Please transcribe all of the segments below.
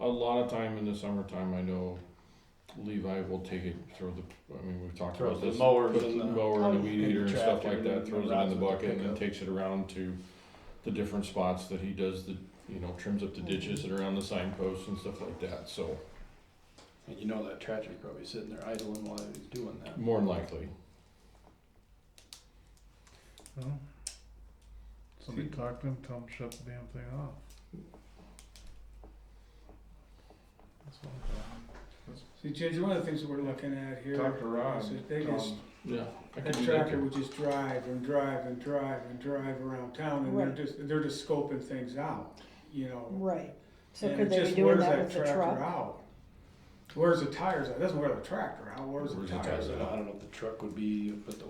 a lot of time in the summertime, I know Levi will take it, throw the, I mean, we've talked Throw about the this. mowers Puts and the the, mower and the Oh, weed and eater and stuff tractor like that, and throws it in rods the with the bucket and then pickup. takes it around to the different spots that he does the, you know, trims up the Mm-hmm. ditches that are on the signposts and stuff like that, so, and you know that tractor's probably sitting there idling while he's doing that. more than likely. Well, Somebody talked to him, tell him to shut the damn thing off. That's all I'm See, Ginger, one of the things that we're looking at here doing. is Talk to Ron. that they tell just, him. Yeah. I could that do tractor too. would just drive and drive and drive and drive around town, and Right. they're just, they're just scoping things out, you know? Right, so And could it they be just doing wears that with the tractor truck? out. Wears the tires out, doesn't wear the tractor out, wears the Wears the tires tires So out. I don't know if the truck would be up at the,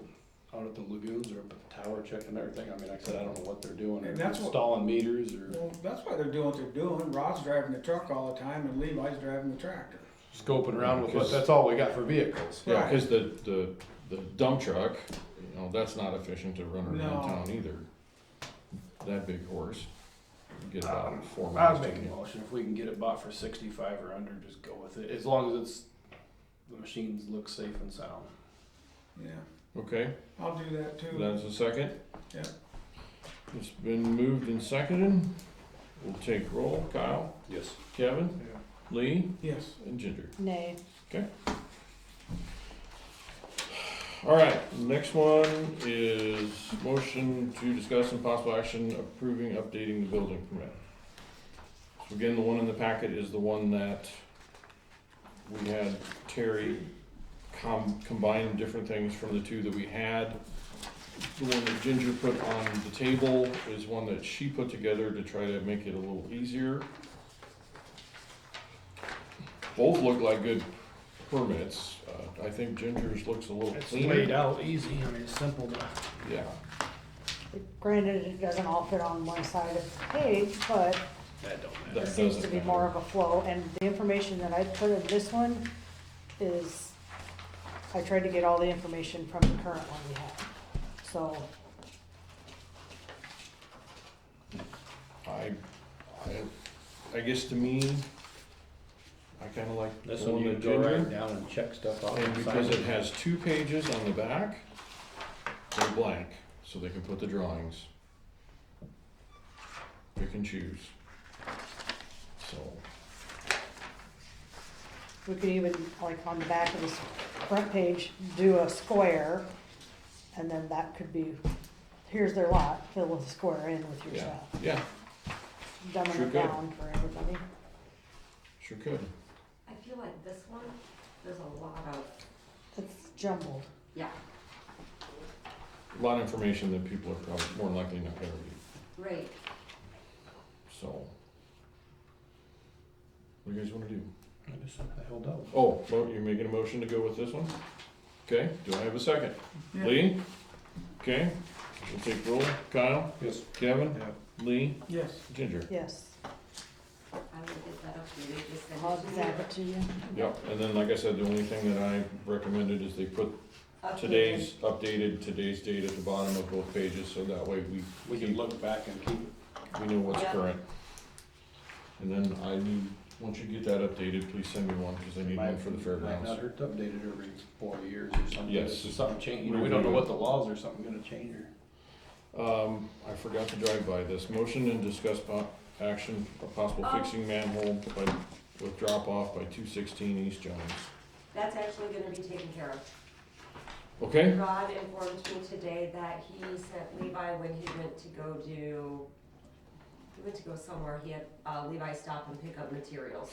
out at the lagoons or up at the tower checking everything. I mean, like I said, I don't know what they're doing. or if And that's they're what- Installing meters or Well, that's why they're doing what they're doing, Rod's driving the truck all the time, and Levi's driving the tractor. scoping around with, what Because- that's all we got for vehicles. Yeah, cause the, the, the dump truck, you know, that's not efficient to run No. around town either. That big horse, you get Um, about four I miles would to make a get. motion, if we can get it bought for sixty-five or under, just go with it, as long as it's, the machines look safe and sound. Yeah, Okay, I'll do that too. that's a second. Yeah. It's been moved and seconded. We'll take roll. Kyle, Yes. Kevin, Yeah. Lee, Yes. and Ginger. Nay, All right, next one is motion to discuss and possible action approving updating the building permit. So again, the one in the packet is the one that we had Terry com- combine different things from the two that we had. The one that Ginger put on the table is one that she put together to try to make it a little easier. Both look like good permits. Uh, I think Ginger's looks a little It's cleaner. laid out easy, I mean, it's simple to. Yeah, granted, it doesn't all fit on one side of the page, but That don't matter. it That seems to doesn't be matter. more of a flow, and the information that I put in this one is, I tried to get all the information from the current one we have, so, I, I, I guess to me, I kinda like the This one one you with can go right Ginger. down and check stuff off. And and because sign it has two pages on the back, they're blank, so they can put the drawings. Pick and choose. So, we could even, like, on the back of this front page, do a square, and then that could be, here's their lot, fill the square in with your yeah, stuff, yeah, dumbing Sure it could. down for everybody. sure could. I feel like this one, there's a lot of, It's jumbled. yeah, A lot of information that people are probably more than likely not gonna read, right. so. What do you guys wanna do? I just, I held out. Oh, well, you're making a motion to go with this one? Okay, do I have a second? Lee? Okay, we'll take roll. Kyle, Yes. Kevin, Yeah. Lee, Yes. Ginger. Yes, I will get that updated, just send I'll it to zap you. it to you. Yep, and then like I said, the only thing that I recommended is they put Updated. today's, updated today's date at the bottom of both pages, so that way we, We can look back and keep it. we know what's Yeah. current. And then I need, once you get that updated, please send me one, because I need one for the Might not fairgrounds. hurt to update it every four years or something. Yes. If Something change, you know, we don't know what the laws or something gonna change or. Um, I forgot to drive by this. Motion and discuss po- action, of possible Oh. fixing manhole by, with drop off by two sixteen East Jones. That's actually gonna be taken care of. Okay? Rod informed me today that he sent Levi when he went to go do, he went to go somewhere, he had uh, Levi stop and pick up materials.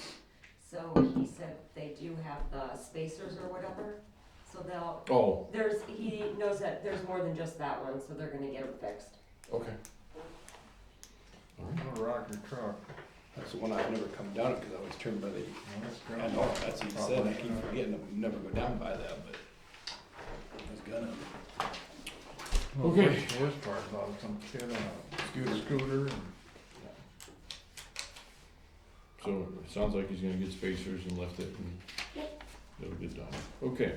So he said they do have the spacers or whatever, so they'll, Oh, there's, he knows that there's more than just that one, so they're gonna get them fixed. okay. I'm gonna rock your truck. That's the one I've never come down because I always turn by the, Well, that's I ground. know, that's what he said, I keep forgetting, I never go down by that, but I was gonna. Well, Okay. worst- Worst part about it, some kid on a scooter, scooter and So it sounds like he's gonna get spacers and left it and it'll get done. Okay.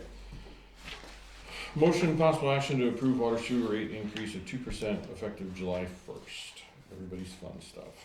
Motion and possible action to approve water sewer rate increase of two percent effective July first. Everybody's fun stuff.